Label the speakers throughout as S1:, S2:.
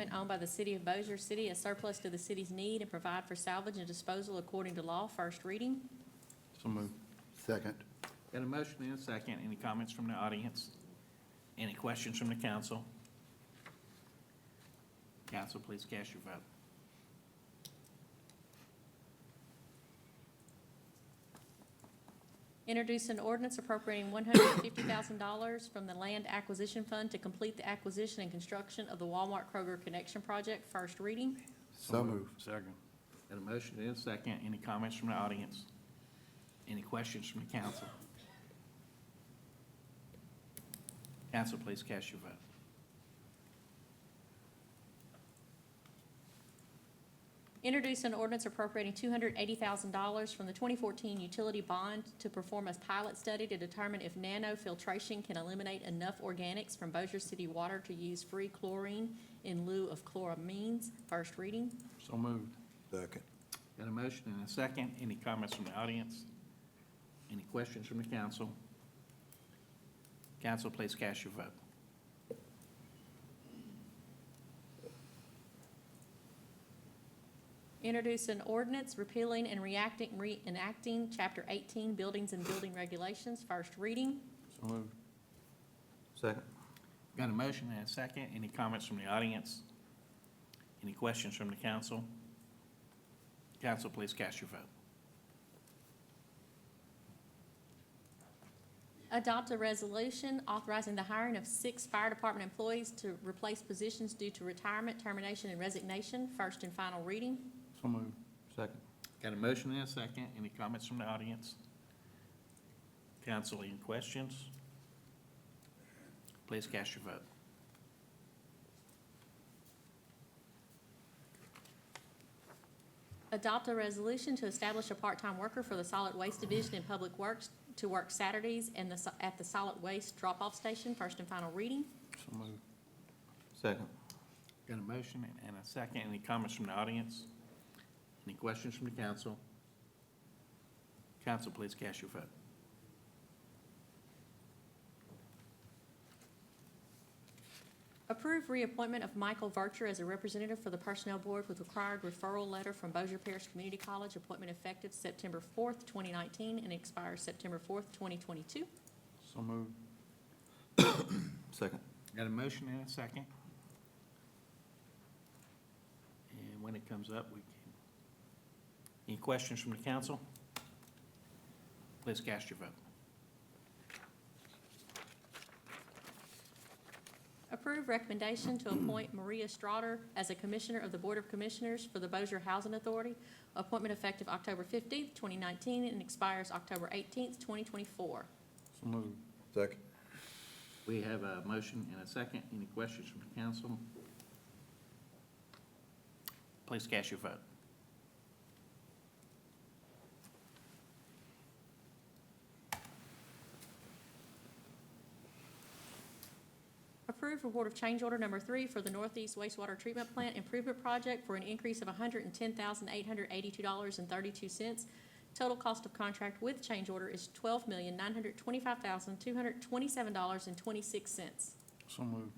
S1: equipment owned by the city of Bossier City as surplus to the city's need and provide for salvage and disposal according to law, first reading.
S2: So moved. Second.
S3: Got a motion and a second. Any comments from the audience? Any questions from the council? Council, please cast your vote.
S1: Introduce an ordinance appropriating one hundred and fifty thousand dollars from the Land Acquisition Fund to complete the acquisition and construction of the Walmart Kroger Connection Project, first reading.
S2: So moved.
S4: Second.
S3: Got a motion and a second. Any comments from the audience? Any questions from the council? Council, please cast your vote.
S1: Introduce an ordinance appropriating two hundred eighty thousand dollars from the twenty fourteen utility bond to perform a pilot study to determine if nanofiltration can eliminate enough organics from Bossier City water to use free chlorine in lieu of chloramines, first reading.
S3: So moved.
S2: Second.
S3: Got a motion and a second. Any comments from the audience? Any questions from the council? Council, please cast your vote.
S1: Introduce an ordinance repealing and reacting, reenacting chapter eighteen, buildings and building regulations, first reading.
S2: So moved. Second.
S3: Got a motion and a second. Any comments from the audience? Any questions from the council? Council, please cast your vote.
S1: Adopt a resolution authorizing the hiring of six fire department employees to replace positions due to retirement, termination, and resignation, first and final reading.
S2: So moved. Second.
S3: Got a motion and a second. Any comments from the audience? Council, any questions? Please cast your vote.
S1: Adopt a resolution to establish a part-time worker for the solid waste division in Public Works to work Saturdays and the, so- at the solid waste drop-off station, first and final reading.
S2: So moved. Second.
S3: Got a motion and a second. Any comments from the audience? Any questions from the council? Council, please cast your vote.
S1: Approve reappointment of Michael Vercher as a representative for the Personnel Board with required referral letter from Bossier Parish Community College, appointment effective September fourth, twenty nineteen, and expires September fourth, twenty twenty-two.
S2: So moved. Second.
S3: Got a motion and a second. And when it comes up, we can, any questions from the council? Please cast your vote.
S1: Approve recommendation to appoint Maria Strader as a Commissioner of the Board of Commissioners for the Bossier Housing Authority, appointment effective October fifteenth, twenty nineteen, and expires October eighteenth, twenty twenty-four.
S2: So moved. Second.
S3: We have a motion and a second. Any questions from the council? Please cast your vote.
S1: Approve report of change order number three for the Northeast Wastewater Treatment Plant Improvement Project for an increase of hundred and ten thousand eight hundred eighty-two dollars and thirty-two cents. Total cost of contract with change order is twelve million nine hundred twenty-five thousand two hundred twenty-seven dollars and twenty-six cents.
S2: So moved.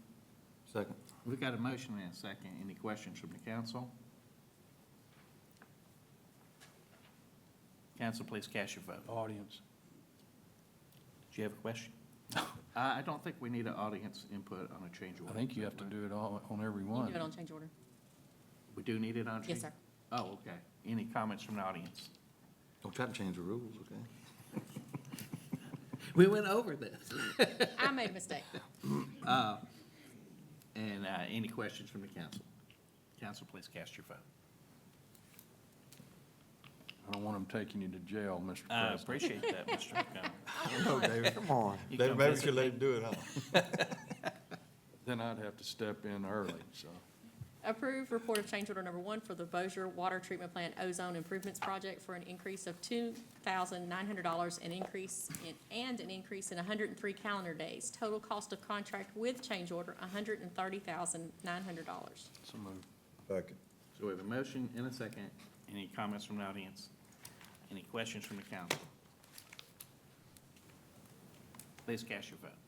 S2: Second.
S3: We've got a motion and a second. Any questions from the council? Council, please cast your vote.
S4: Audience.
S3: Do you have a question? I, I don't think we need an audience input on a change order.
S4: I think you have to do it all, on every
S1: You can
S4: one.
S1: do it on change order.
S3: We do need it on change?
S1: Yes, sir.
S3: Oh, okay. Any comments from the audience?
S2: Don't try to change the rules, okay?
S3: We went over this.
S1: I made a mistake.
S3: Uh, And, uh, any questions from the council? Council, please cast your vote.
S4: I don't want them taking you to jail, Mr.
S3: I
S4: President.
S3: Uh, appreciate that, Mr. Montgomery.
S2: No, David, come on.
S3: You
S2: David,
S3: come
S2: maybe we
S3: visit
S2: should let him do it, huh?
S4: Then I'd have to step in early, so.
S1: Approve report of change order number one for the Bossier Water Treatment Plant Ozone Improvements Project for an increase of two thousand nine hundred dollars and increase in, and an increase in hundred and three calendar days. Total cost of contract with change order, hundred and thirty thousand nine hundred dollars.
S4: So moved.
S2: Second.
S3: So we have a motion and a second. Any comments from the audience? Any questions from the council? Please cast your vote.